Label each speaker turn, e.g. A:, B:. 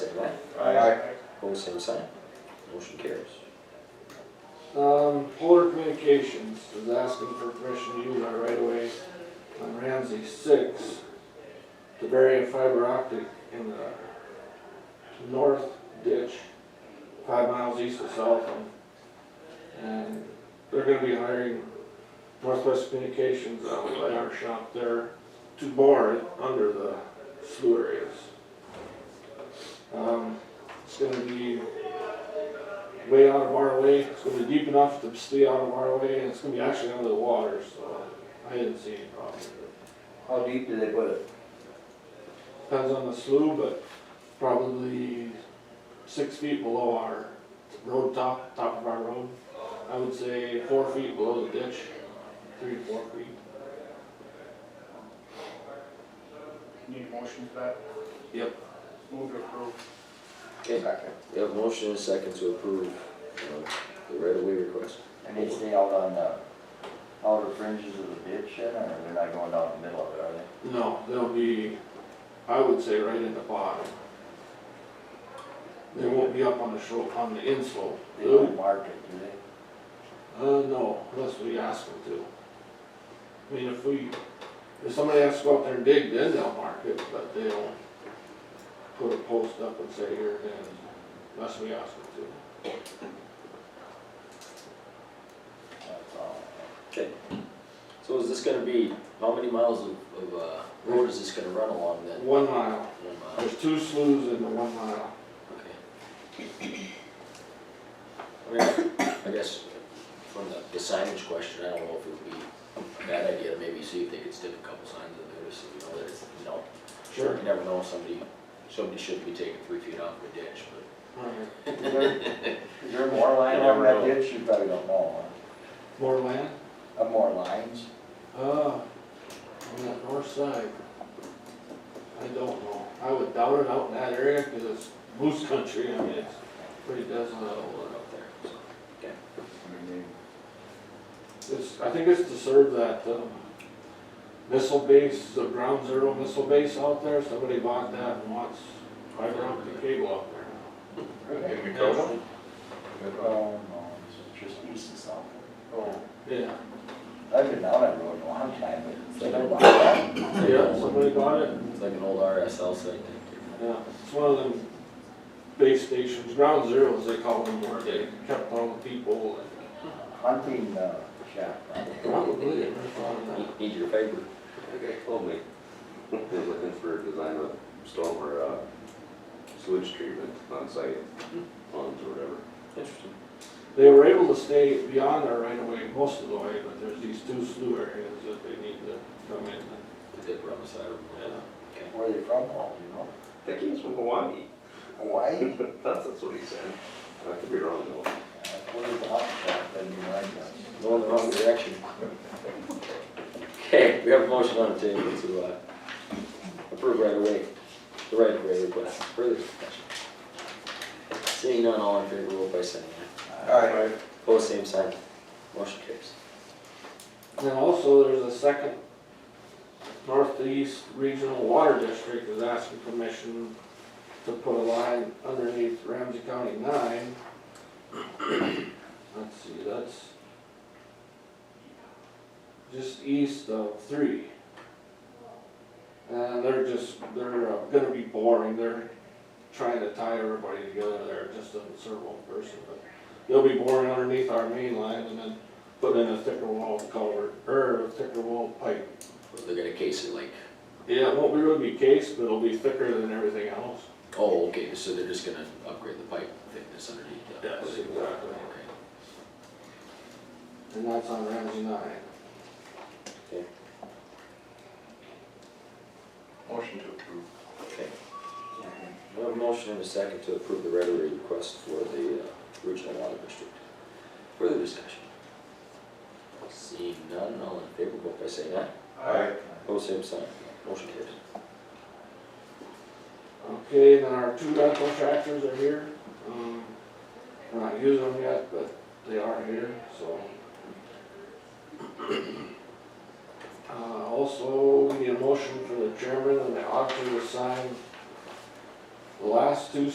A: opposed, same sign. Motion carries.
B: Um, Polar Communications is asking for permission to use our right of way on Ramsey six to bury a fiber optic in the north ditch, five miles east of Southam. And they're gonna be hiring Northwest Communications out by our shop there to bore it under the slough areas. Um, it's gonna be way out of our way. It's gonna be deep enough to stay out of our way, and it's gonna be actually under the water, so I didn't see any problem. with
C: How deep do they put it?
B: it. Depends on the slough, but probably six feet below our road top, top of our road. I would say four feet below the ditch, three, to four feet.
D: Need a motion for that?
B: Yep.
D: Move to approve.
A: Okay, we have a motion and a second to approve uh, the right-of-way request.
C: And they stay out on the outer fringes of the ditch then, or they're not going down the middle of it, are they?
B: No, they'll be, I would say right in the bottom. They won't be up on the shore, on the inslope.
C: They don't mark it, do they?
B: Uh, no, unless we ask them to. I mean, if we, if somebody has to go up there and dig, then they'll mark it, but they don't put a post up and say here it is, unless we ask them
C: That's all.
A: So is this gonna be, how many miles of, of, uh, road is this gonna run along
B: to.
A: then? Um,
B: One mile,
A: One mile,
B: there's two sloughs in the one mile.
A: uh, okay. I mean, I guess from the- the signage question, I don't know if it would be a bad idea to maybe see if they could stick a couple signs in there, so you know that it's, you know,
B: Sure.
A: you never know, somebody, somebody shouldn't be taking three feet off of a ditch, but.
B: Alright.
C: Is there- is there more line
A: You never
C: on that
A: know.
C: ditch? You probably don't know,
B: More land?
C: huh? Uh, more lines?
B: Uh, on that north side. I don't know, I would doubt it out in that area, cause it's moose country, I mean, it's pretty desolate over there.
A: out there, so.
C: I mean,
B: It's, I think it's to serve that, um, missile base, the ground zero missile base out there, somebody bought that and wants fiber optic cable out there.
C: they-
E: In Macoma?
C: No, no, it's just east of South. Oh.
B: Yeah,
C: I've been down that road a long time, but it's been a while.
B: yeah, somebody bought it,
A: It's like an old RSL site, thank
B: yeah, it's one of them base stations, ground zeros they call them, where they kept all the people and.
C: Hunting, uh, shack. probably.
B: Probably, I never thought of that.
A: you. Need your paper.
B: Okay.
E: Told me. They're looking for a design of storm or uh, sewage treatment on site, ponds or whatever.
A: Interesting.
B: They were able to stay beyond there right away, most of the way, but there's these two slew areas that they need to come in,
A: They did run the side of
B: yeah.
C: Where are they from, Paul, do you know?
E: I think he was from Hawaii.
C: Hawaii? Uh,
E: That's, that's what he said. I could be wrong though.
C: Where's the hot shop, that'd be my guess.
A: Going the wrong direction. Okay, we have a motion on the table to, uh, approve right away, the right of way request, further discussion. Seeing none, all in favor, vote by saying aye.
C: Alright.
A: Opposed, same sign. Motion carries.
B: And also, there's a second Northeast Regional Water District is asking permission to put a line underneath Ramsey County nine. Let's see, that's just east of three. And they're just, they're uh, gonna be boring, they're trying to tie everybody together there, it just doesn't serve one person, but they'll be boring underneath our main line and then put in a thicker wall culvert, or a thicker wall pipe.
A: They're gonna case it like,
B: Yeah, it won't really be cased, but it'll be thicker than everything else.
A: oh, okay, so they're just gonna upgrade the pipe thickness underneath. the-
B: Yes, exactly.
A: Okay.
B: And that's on Ramsey nine.
D: Motion to approve.
A: Okay. We have a motion and a second to approve the right-of-way request for the uh, original water district. Further discussion? Seeing none, all in favor, vote by saying aye.
D: Aye.
A: Opposed, same sign. Motion carries.
B: Okay, then our two rental tractors are here. Um, We're not using them yet, but they are here, so. Uh, also, we need a motion for the chairman and the auditor to sign the last two